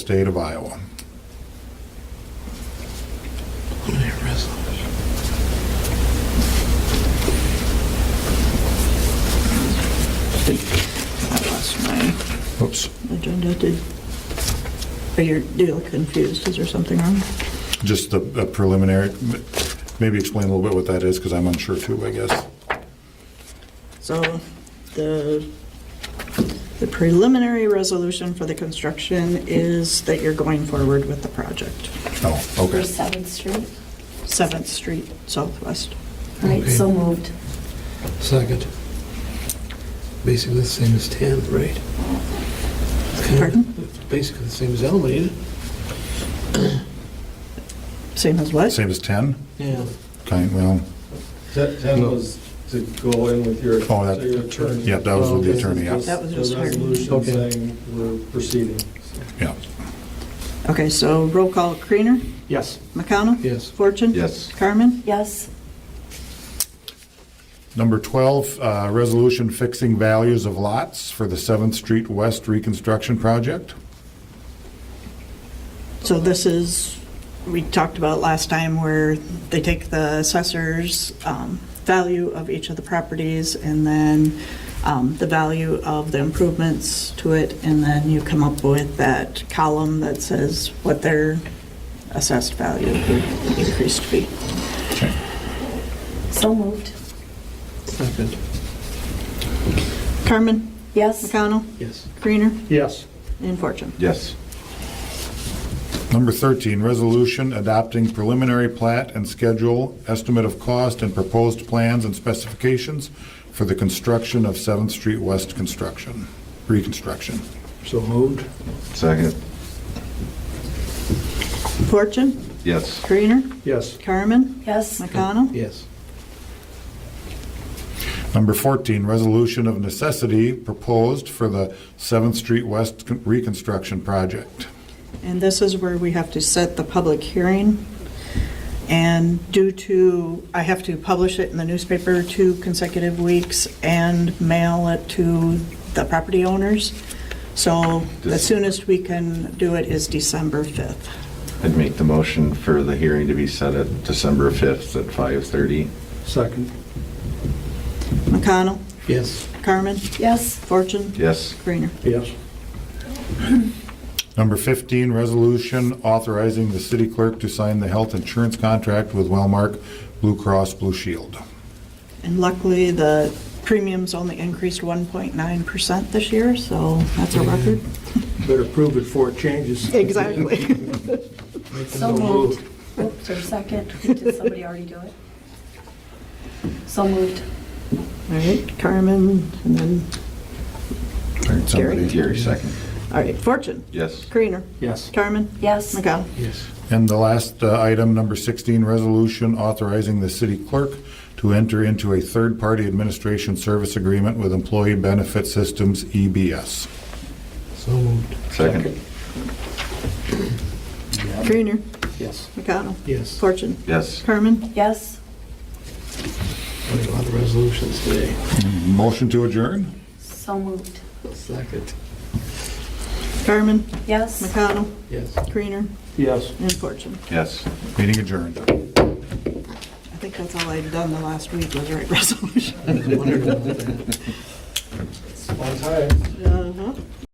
state of Iowa. I lost my Oops. agenda. Did, are you, do you look confused? Is there something wrong? Just the the preliminary, maybe explain a little bit what that is, because I'm unsure too, I guess. So the, the preliminary resolution for the construction is that you're going forward with the project. Oh, okay. For Seventh Street. Seventh Street Southwest. All right, so Okay. moved. Second. Basically the same as 10, right? Pardon? Basically the same as Elm, ain't it? Same as what? Same as 10? Yeah. Okay, well, That that No. was to go in with your, Oh, that- so your attorney. yeah, that was with the Okay. attorney, yeah. That was The just her. resolution Okay. saying we're proceeding. so. yeah. Okay, so roll call, Creener, Yes. McConnell? Yes. Fortune? Yes. Carmen? Yes, Number 12, uh, resolution fixing values of lots for the 7th Street West reconstruction project. So this is, we talked about last time where they take the assessor's um, value of each of the properties and then um, the value of the improvements to it, and then you come up with that column that says what their assessed value would increase to be. so moved. Second. Carmen? Yes, McConnell? Yes. Creener? Yes. And Fortune? Yes. Number 13, resolution adopting preliminary plat and schedule, estimate of cost and proposed plans and specifications for the construction of 7th Street West construction, reconstruction. So moved? Second. Fortune? Yes. Creener? Yes. Carmen? yes, McConnell? Yes. Number 14, resolution of necessity proposed for the 7th Street West con- reconstruction project. And this is where we have to set the public hearing. And due to, I have to publish it in the newspaper two consecutive weeks and mail it to the property owners. So the soonest we can do it is December 5th. I'd make the motion for the hearing to be set at December 5th at 5:30. Second. McConnell, Yes. Carmen, yes, Fortune, Yes. Greener. Yes. Number 15, resolution authorizing the city clerk to sign the health insurance contract with Wellmark Blue Cross Blue Shield. And luckily, the premiums only increased 1.9% this year, so that's a record. Better prove it before it changes. Exactly. Make the so no move. moved. Oops, there's a second. Did somebody already do it? So moved. All right, Carmen, and then, Somebody- Gary, second. all right, Fortune, Yes. Greener, Yes. Carmen, Yes, McConnell. Yes. And the last uh, item, number 16, resolution authorizing the city clerk to enter into a third-party administration service agreement with Employee Benefit Systems, E EBS. So moved? Second. Greener, Yes. McConnell, Yes. Fortune, Yes. Carmen, yes, Got A lot of resolutions today. Motion to adjourn? so moved. Second. Carmen, Yes. McConnell, Yes. Greener, Yes. and Fortune. Yes. Meeting adjourned. I think that's all I'd done the last week was write resolution. I was wondering about that. On time. Uh-huh.